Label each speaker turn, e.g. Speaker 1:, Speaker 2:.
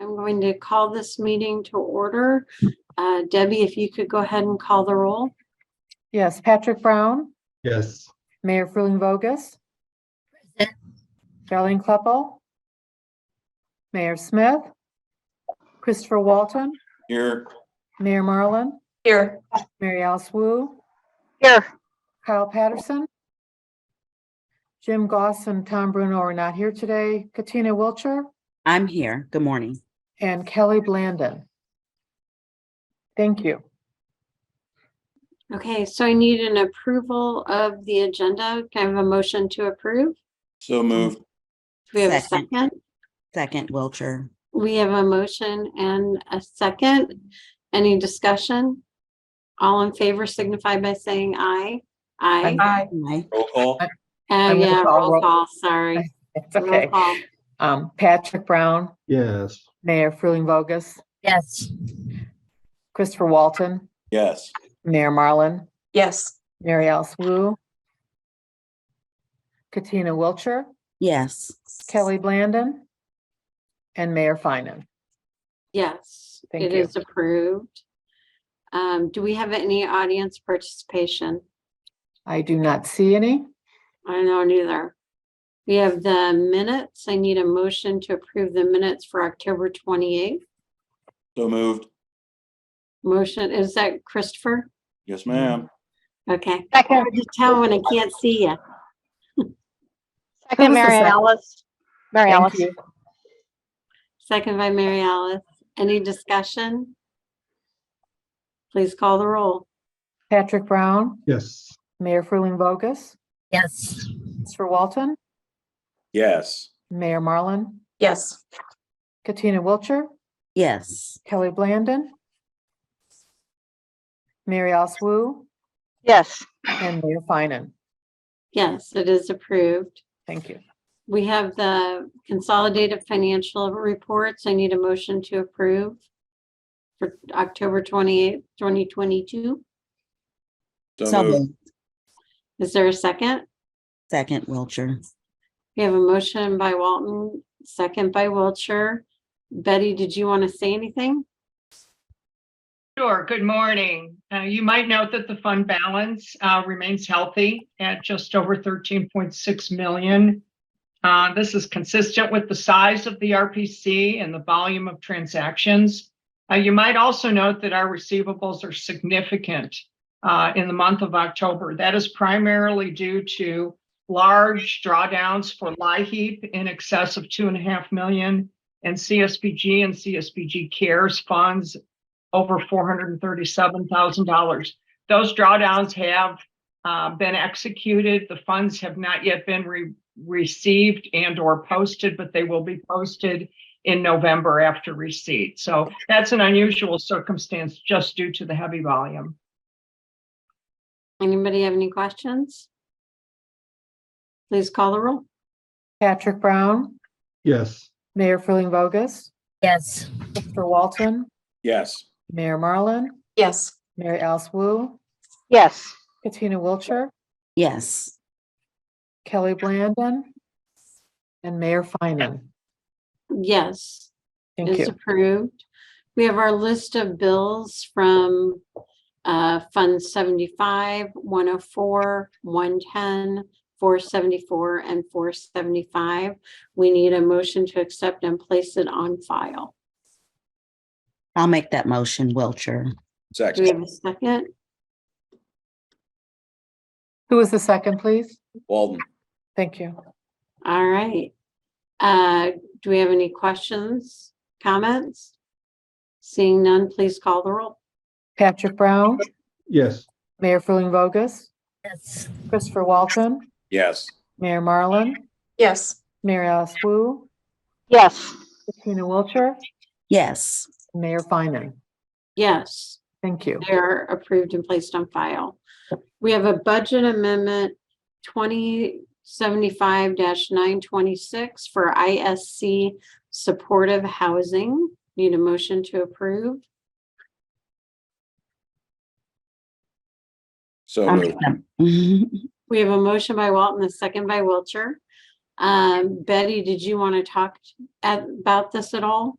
Speaker 1: going to call this meeting to order. Uh, Debbie, if you could go ahead and call the roll.
Speaker 2: Yes, Patrick Brown,
Speaker 3: Yes.
Speaker 2: Mayor Frühling Vogus. Darlene Kleppel. Mayor Smith. Christopher Walton,
Speaker 4: Here.
Speaker 2: Mayor Marlin,
Speaker 5: Here.
Speaker 2: Mary Alice Wu,
Speaker 5: Here.
Speaker 2: Kyle Patterson. Jim Goss and Tom Bruno are not here today. Katina Wilcher
Speaker 6: I'm here. Good morning.
Speaker 2: and Kelly Blandon. Thank you.
Speaker 1: Okay, so I need an approval of the agenda. Can I have a motion to approve?
Speaker 4: So moved.
Speaker 1: Do we have a
Speaker 6: Second.
Speaker 1: second?
Speaker 6: Second, Wilcher.
Speaker 1: We have a motion and a second. Any discussion? All in favor signify by saying aye. Aye.
Speaker 5: Aye.
Speaker 6: Aye.
Speaker 4: Roll call.
Speaker 1: Uh,
Speaker 2: I'm gonna
Speaker 1: yeah,
Speaker 2: call
Speaker 1: roll
Speaker 2: roll.
Speaker 1: call, sorry.
Speaker 2: It's
Speaker 1: Roll
Speaker 2: okay.
Speaker 1: call.
Speaker 2: Um, Patrick Brown,
Speaker 3: Yes.
Speaker 2: Mayor Frühling Vogus,
Speaker 5: Yes.
Speaker 2: Christopher Walton,
Speaker 4: Yes.
Speaker 2: Mayor Marlin,
Speaker 5: Yes.
Speaker 2: Mary Alice Wu. Katina Wilcher,
Speaker 6: Yes.
Speaker 2: Kelly Blandon. And Mayor Finan.
Speaker 1: Yes,
Speaker 2: Thank
Speaker 1: it
Speaker 2: you.
Speaker 1: is approved. Um, do we have any audience participation?
Speaker 2: I do not see any.
Speaker 1: I don't know neither. We have the minutes. I need a motion to approve the minutes for October twenty-eighth.
Speaker 4: So moved.
Speaker 1: Motion, is that Christopher?
Speaker 4: Yes, ma'am.
Speaker 1: Okay. I can tell when I can't see you.
Speaker 2: Second, Mary
Speaker 5: Alice. Mary
Speaker 2: Thank you.
Speaker 1: Second by Mary Alice. Any discussion? Please call the roll.
Speaker 2: Patrick Brown,
Speaker 3: Yes.
Speaker 2: Mayor Frühling Vogus,
Speaker 5: Yes.
Speaker 2: Christopher Walton,
Speaker 4: Yes.
Speaker 2: Mayor Marlin,
Speaker 5: Yes.
Speaker 2: Katina Wilcher,
Speaker 6: Yes.
Speaker 2: Kelly Blandon. Mary Alice Wu
Speaker 5: Yes.
Speaker 2: and Mayor Finan.
Speaker 1: Yes, it is approved.
Speaker 2: Thank you.
Speaker 1: We have the consolidated financial reports. I need a motion to approve for October twenty-eighth, twenty twenty-two.
Speaker 4: So moved.
Speaker 6: moved.
Speaker 1: Is there a second?
Speaker 6: Second, Wilcher.
Speaker 1: We have a motion by Walton, second by Wiltshire. Betty, did you want to say anything?
Speaker 7: Sure. Good morning. Uh, You might note that the fund balance uh, remains healthy at just over 13.6 million. Uh, This is consistent with the size of the RPC and the volume of transactions. Uh, You might also note that our receivables are significant uh, in the month of October. That is primarily due to large drawdowns for LIHEAP in excess of 2.5 million and CSBG and CSBG Cares funds over four hundred and thirty-seven thousand dollars. Those drawdowns have uh, been executed. The funds have not yet been re- received and or posted, but they will be posted in November after receipt. So that's an unusual circumstance just due to the heavy volume.
Speaker 1: Anybody have any questions? Please call the roll.
Speaker 2: Patrick Brown,
Speaker 3: Yes.
Speaker 2: Mayor Frühling Vogus,
Speaker 5: Yes.
Speaker 2: Christopher Walton,
Speaker 4: Yes.
Speaker 2: Mayor Marlin,
Speaker 5: Yes.
Speaker 2: Mary Alice Wu,
Speaker 5: Yes.
Speaker 2: Katina Wilcher,
Speaker 6: Yes.
Speaker 2: Kelly Blandon, and Mayor Finan.
Speaker 1: Yes,
Speaker 2: Thank
Speaker 1: it's
Speaker 2: you.
Speaker 1: approved. We have our list of bills from uh, Fund oh 75, 104, 110, 474, and 475. We need a motion to accept and place it on file.
Speaker 6: I'll make that motion, Wilcher.
Speaker 1: Do we
Speaker 4: Second.
Speaker 1: have a second?
Speaker 2: Who was the second, please?
Speaker 4: Walden.
Speaker 2: Thank you.
Speaker 1: All right. Uh, do we have any questions, comments? Seeing none, please call the roll.
Speaker 2: Patrick Brown,
Speaker 3: Yes.
Speaker 2: Mayor Frühling Vogus,
Speaker 5: Yes.
Speaker 2: Christopher Walton,
Speaker 4: Yes.
Speaker 2: Mayor Marlin,
Speaker 5: Yes.
Speaker 2: Mary Alice Wu,
Speaker 5: Yes.
Speaker 2: Katina Wilcher,
Speaker 6: Yes.
Speaker 2: Mayor Finan.
Speaker 1: Yes.
Speaker 2: Thank you.
Speaker 1: They are approved and placed on file. We have a budget amendment twenty seventy-five nine twenty-six for ISC supportive housing. Need a motion to approve?
Speaker 4: So
Speaker 6: I'll
Speaker 4: moved.
Speaker 6: make that-
Speaker 1: We have a motion by Walton, a second by Wiltshire. Um, Betty, did you want to talk t- at- about this at all?